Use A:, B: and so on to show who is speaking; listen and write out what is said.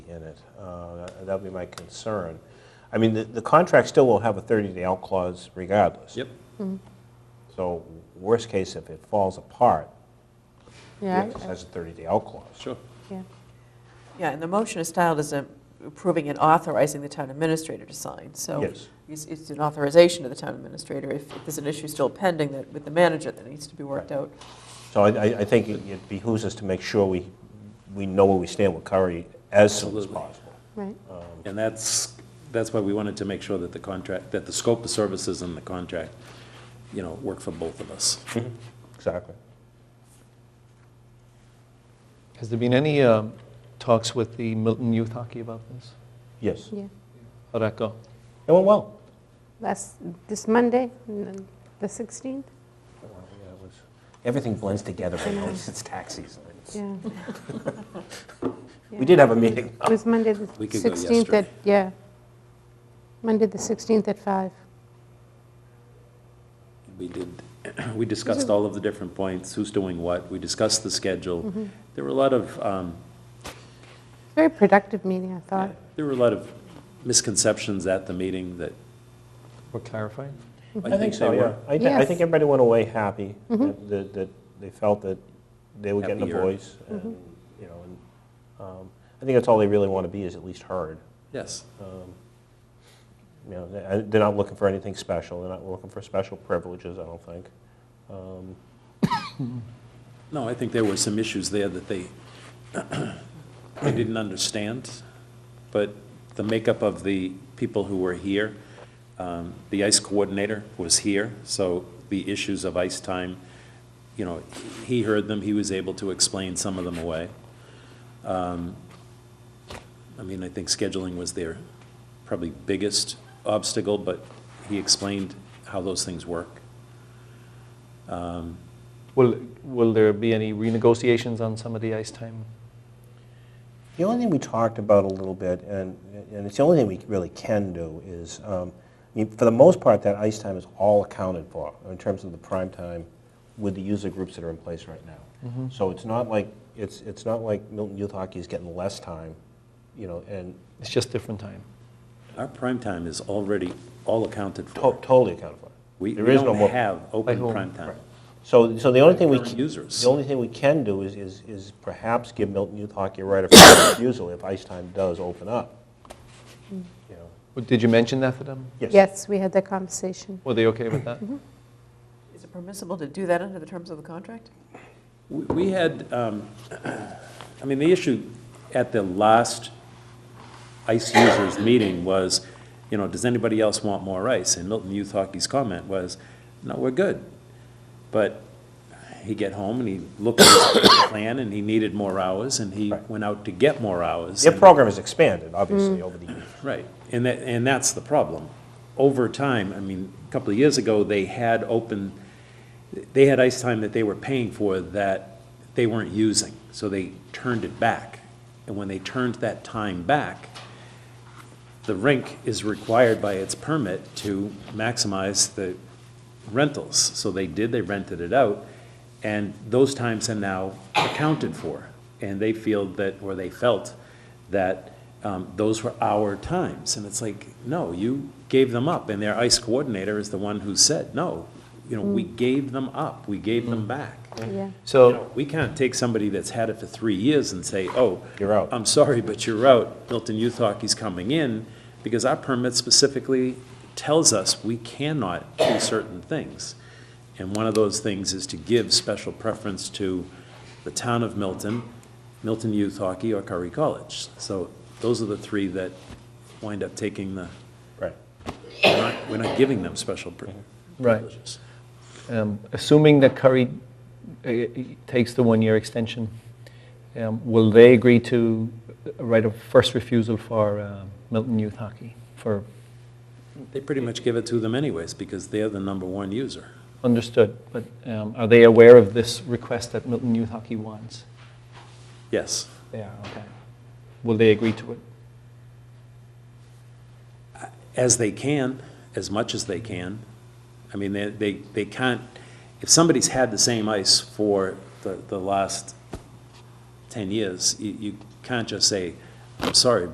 A: in it. Uh, That'd be my concern. I mean, the- the contract still will have a 30-day out clause regardless.
B: Yep.
C: Mm-hmm.
A: So worst case, if it falls apart,
C: Yeah,
A: it
C: I-
A: has a 30-day out clause.
B: Sure.
C: yeah.
D: Yeah, and the motion is styled as a- approving and authorizing the town administrator to sign, so.
A: Yes.
D: It's, it's an authorization to the town administrator. If if there's an issue still pending that, with the manager that needs to be worked out.
A: So I I- I think it it behooves us to make sure we we know where we stand with Curry as soon as
B: Absolutely.
A: possible.
C: right.
B: And that's, that's why we wanted to make sure that the contract, that the scope of services in the contract, you know, work for both of us.
A: Exactly.
E: Has there been any um, talks with the Milton Youth Hockey about this?
A: Yes.
C: Yeah.
E: How'd that go?
A: It went well.
C: Last, this Monday, n- the 16th?
A: Everything blends together, but it's tax season. It's-
C: Yeah.
A: We did have a meeting.
C: It was Monday, the
B: We could go
C: 16th at,
B: yesterday.
C: yeah. Monday, the 16th at five.
B: We did, we discussed all of the different points, who's doing what, we discussed the schedule. There were a lot of, um,
C: Very productive meeting, I thought.
B: there were a lot of misconceptions at the meeting that.
E: We're clarifying?
A: I think so,
B: they
A: yeah.
B: were.
A: I thi- I
C: Yes.
A: think everybody went away happy, that- that that they felt that they were getting a
B: Happier.
A: voice, and, you know, and um, I think that's all they really want to be, is at least heard.
B: Yes,
A: You know, they- I- they're not looking for anything special, they're not looking for special privileges, I don't think.
B: no, I think there were some issues there that they, they didn't understand, but the makeup of the people who were here, um, the ICE coordinator was here, so the issues of ICE time, you know, he heard them, he was able to explain some of them away. Um, I mean, I think scheduling was their probably biggest obstacle, but he explained how those things work.
E: Will, will there be any renegotiations on some of the ice time?
A: The only thing we talked about a little bit, and, and it's the only thing we really can do, is, um, I mean, for the most part, that ice time is all accounted for in terms of the prime time with the user groups that are in place right now. So it's not like, it's, it's not like Milton Youth Hockey is getting less time, you know, and
E: It's just different time.
B: Our prime time is already all accounted
A: to-
B: for.
A: totally accounted for.
B: We
A: There
B: we
A: is no more-
B: don't have
E: Like
B: open
E: whom?
B: prime time.
A: So, so the only thing we,
B: Current
A: c-
B: users.
A: the only thing we can do is, is, is perhaps give Milton Youth Hockey a right of first refusal if ice time does open up. You know,
E: Well, Did you mention that to them?
C: Yes, we had that conversation.
E: Were they okay with that?
D: Is it permissible to do that under the terms of the contract?
B: We- We had, um, I mean, the issue at the last ICE users meeting was, you know, does anybody else want more ice? And Milton Youth Hockey's comment was, no, we're good. But he get home and he looked at his plan and he needed more hours and he
A: Right.
B: went out to get more hours.
A: Their
B: and-
A: program has expanded, obviously, over the years.
B: Right, and that, and that's the problem. Over time, I mean, a couple of years ago, they had open, they had ice time that they were paying for that they weren't using, so they turned it back. And when they turned that time back, the rink is required by its permit to maximize the rentals. So they did, they rented it out, and those times are now accounted for. And they feel that, or they felt that um, those were our times. And it's like, no, you gave them up. And their ICE coordinator is the one who said, no, you know, we gave them up, we gave them back.
C: Yeah.
B: You
E: So,
B: know, We can't take somebody that's had it for three years and say, oh.
A: You're out.
B: I'm sorry, but you're out. Milton Youth Hockey's coming in, because our permit specifically tells us we cannot do certain things. And one of those things is to give special preference to the town of Milton, Milton Youth Hockey, or Curry College. So those are the three that wind up taking the,
A: Right.
B: we're not, we're not giving them special pri-
E: Right.
B: privileges.
E: um, assuming that Curry uh, takes the one-year extension, um, will they agree to a right of first refusal for um, Milton Youth Hockey? For,
B: They pretty much give it to them anyways, because they're the number one user.
E: understood, but um, are they aware of this request that Milton Youth Hockey wants?
B: Yes.
E: They are, okay. Will they agree to it?
B: as they can, as much as they can. I mean, they, they, they can't, if somebody's had the same ice for the, the last ten years, you, you can't just say, I'm sorry,